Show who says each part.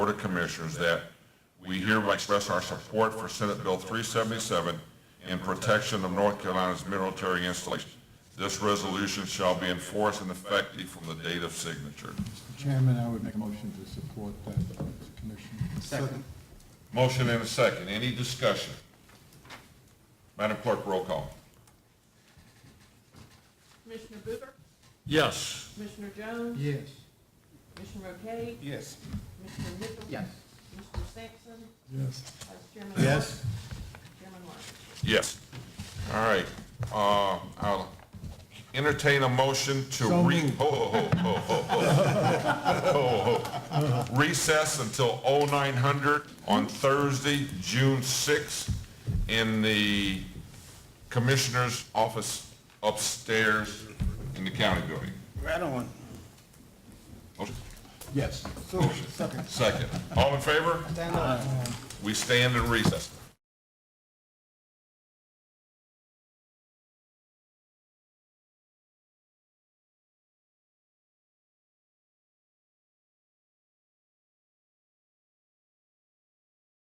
Speaker 1: Board of Commissioners that we hereby express our support for Senate Bill 377 in protection of North Carolina's military installations. This resolution shall be enforced and effective from the date of signature.
Speaker 2: Chairman, I would make a motion to support that commission. Second.
Speaker 1: Motion and a second. Any discussion? Madam Clerk, roll call.
Speaker 3: Commissioner Booker?
Speaker 1: Yes.
Speaker 3: Commissioner Jones?
Speaker 2: Yes.
Speaker 3: Commissioner Rocade?
Speaker 2: Yes.
Speaker 3: Commissioner Mitchell? Yes. Commissioner Sampson?
Speaker 2: Yes.
Speaker 3: Vice Chairman Martin?
Speaker 2: Yes.
Speaker 3: Chairman Martin?
Speaker 1: Yes. All right. Uh, I'll entertain a motion to
Speaker 2: So
Speaker 1: re,
Speaker 2: moved.
Speaker 1: ho, ho, ho, ho, ho, ho, ho, ho. recess until 0900 on Thursday, June 6th, in the Commissioner's office upstairs in the county building.
Speaker 4: Right on.
Speaker 1: Motion?
Speaker 2: Yes. So, second.
Speaker 1: Second. All in favor?
Speaker 4: Stand up.
Speaker 1: We stand in recess.